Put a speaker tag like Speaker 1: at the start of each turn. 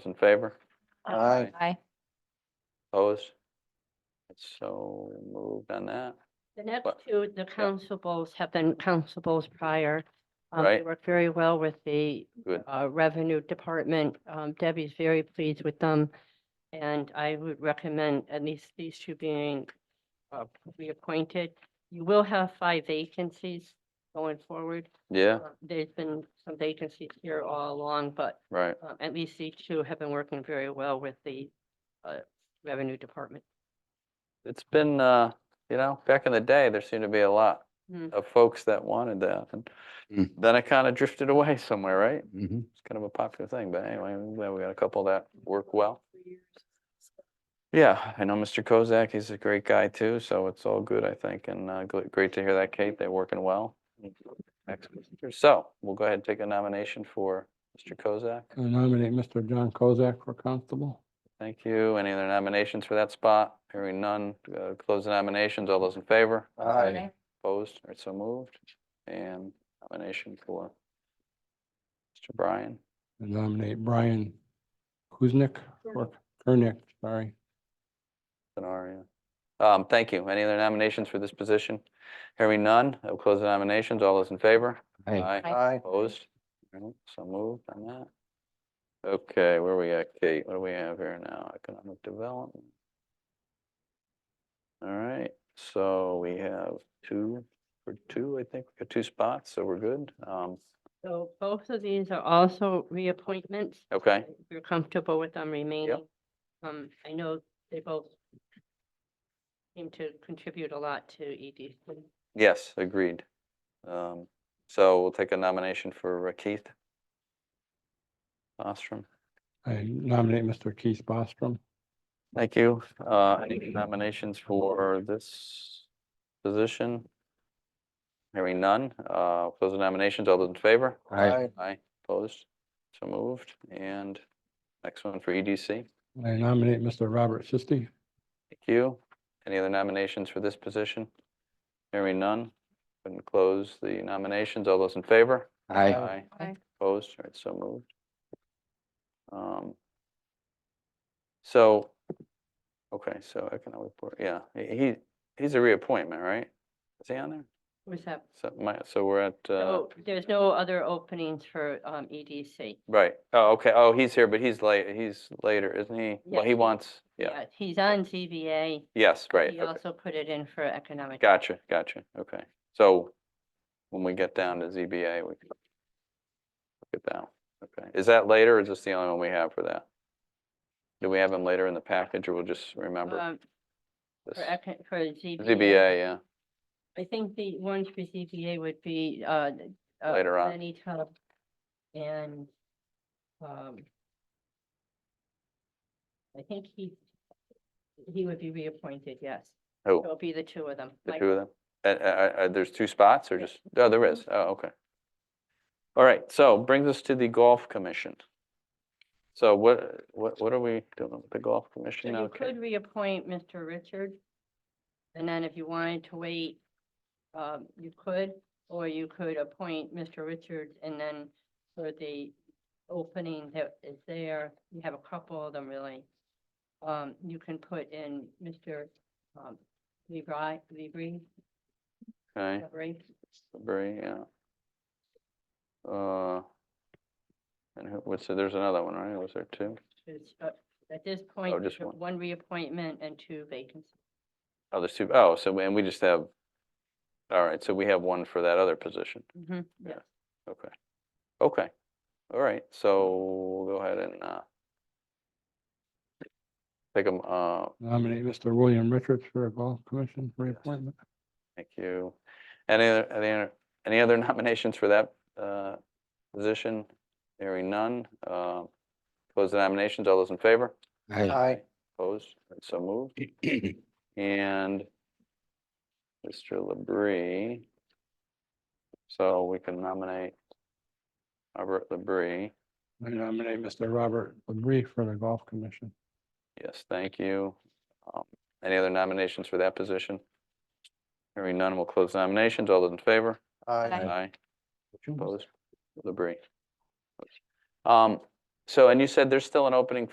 Speaker 1: Those in favor?
Speaker 2: Aye.
Speaker 3: Aye.
Speaker 1: Opposed? It's so moved on that.
Speaker 4: The next
Speaker 1: But-
Speaker 4: two, the constables have been constables prior. Um, They
Speaker 1: Right.
Speaker 4: work very well with the
Speaker 1: Good.
Speaker 4: uh, Revenue Department. Um, Debbie's very pleased with them. And I would recommend at least these two being uh, reappointed. You will have five vacancies going forward.
Speaker 1: Yeah,
Speaker 4: Uh, There's been some vacancies here all along, but
Speaker 1: right.
Speaker 4: um, at least these two have been working very well with the uh, Revenue Department.
Speaker 1: It's been, uh, you know, back in the day, there seemed to be a lot
Speaker 4: Mm.
Speaker 1: of folks that wanted that. And
Speaker 2: Mm.
Speaker 1: then it kind of drifted away somewhere, right?
Speaker 2: Mhm.
Speaker 1: It's kind of a popular thing, but anyway, I'm glad we got a couple that work well. Yeah, I know Mr. Kozak, he's a great guy too, so it's all good, I think, and uh, gl- great to hear that, Kate, they're working well. Excellent. So we'll go ahead and take a nomination for Mr. Kozak.
Speaker 2: I nominate Mr. John Kozak for constable.
Speaker 1: Thank you. Any other nominations for that spot? Hearing none, uh, close the nominations. All those in favor?
Speaker 2: Aye.
Speaker 1: Opposed or so moved? And nomination for Mr. Brian.
Speaker 2: I nominate Brian Kuznick for, Kernick, sorry.
Speaker 1: scenario. Um, thank you. Any other nominations for this position? Hearing none, I'll close the nominations. All those in favor?
Speaker 3: Aye.
Speaker 1: Opposed? Alright, So moved on that. Okay, where we at, Kate? What do we have here now? Economic development. All right, so we have two, for two, I think, we got two spots, so we're good. Um,
Speaker 4: So both of these are also reappointments.
Speaker 1: okay,
Speaker 4: If you're comfortable with them remaining. Um, I know they both seem to contribute a lot to E EDC.
Speaker 1: yes, agreed. Um, so we'll take a nomination for uh, Keith. Ostrom.
Speaker 2: I nominate Mr. Keith Bostrom.
Speaker 1: Thank you. Uh, any nominations for this position? Hearing none, uh, close the nominations. All those in favor? Aye, opposed, so moved. And next one for E EDC. Thank
Speaker 2: I nominate Mr. Robert Sisti.
Speaker 1: you. Any other nominations for this position? Hearing none, go ahead and close the nominations. All those in favor? Aye.
Speaker 3: Aye.
Speaker 1: Opposed, all right, so moved. Um, So, okay, so economic board, yeah, he- he, he's a reappointment, right? Is he on there?
Speaker 4: What's that?
Speaker 1: So my, so we're at, uh,
Speaker 4: So there's no other openings for, um, EDC.
Speaker 1: right, oh, okay, oh, he's here, but he's late, he's later, isn't he? Well,
Speaker 4: Yes,
Speaker 1: he
Speaker 4: he-
Speaker 1: wants, yeah,
Speaker 4: Yes, He's on ZBA.
Speaker 1: yes, right,
Speaker 4: He
Speaker 1: okay.
Speaker 4: also put it in for economic.
Speaker 1: Gotcha, gotcha, okay. So when we get down to ZBA, we can look at that. Okay, is that later or is this the only one we have for that? Do we have them later in the package or we'll just remember
Speaker 4: um,
Speaker 1: this?
Speaker 4: For E econ, for ZBA.
Speaker 1: ZBA, yeah,
Speaker 4: I think the ones for ZBA would be, uh. uh,
Speaker 1: Later on.
Speaker 4: Lenny Tubb and, um. I think he, he would be reappointed, yes.
Speaker 1: who,
Speaker 4: It'll be the two of them.
Speaker 1: the
Speaker 4: Mike-
Speaker 1: two of them? And, uh, uh, there's two spots or just, oh, there is, oh, okay. All right, so brings us to the Golf Commission. So what, what, what are we doing with the Golf
Speaker 4: So
Speaker 1: Commission?
Speaker 4: you
Speaker 1: Okay.
Speaker 4: could reappoint Mr. Richard. And then if you wanted to wait, um, you could, or you could appoint Mr. Richards and then for the opening that is there, you have a couple of them really. Um, you can put in Mr. Um, Lebri, Lebri,
Speaker 1: Okay.
Speaker 4: Lebri.
Speaker 1: Very, yeah. Uh, and who, what's, the- there's another one, right? Was there two?
Speaker 4: It's, uh, At this point,
Speaker 1: Oh, just
Speaker 4: you have
Speaker 1: one.
Speaker 4: one reappointment and two vacancies.
Speaker 1: Oh, there's two, oh, so, and we just have, all right, so we have one for that other position.
Speaker 4: Mhm,
Speaker 1: Yeah.
Speaker 4: yes.
Speaker 1: Okay. Okay. All right, so we'll go ahead and, uh, take them, uh,
Speaker 2: Nominate Mr. William Richards for a golf commission reappointment.
Speaker 1: thank you. Any, other- any, other- any other nominations for that, uh, position? Hearing none, uh, close the nominations. All those in favor?
Speaker 2: Aye.
Speaker 1: Opposed? And So moved. And Mr. Labrie. So we can nominate Robert Labrie.
Speaker 2: I nominate Mr. Robert Labrie for the golf commission.
Speaker 1: Yes, thank you. Um, Any other nominations for that position? Hearing none, we'll close nominations. All those in favor?
Speaker 3: Aye.
Speaker 1: Opposed? Labrie. Um, So, and you said there's still an opening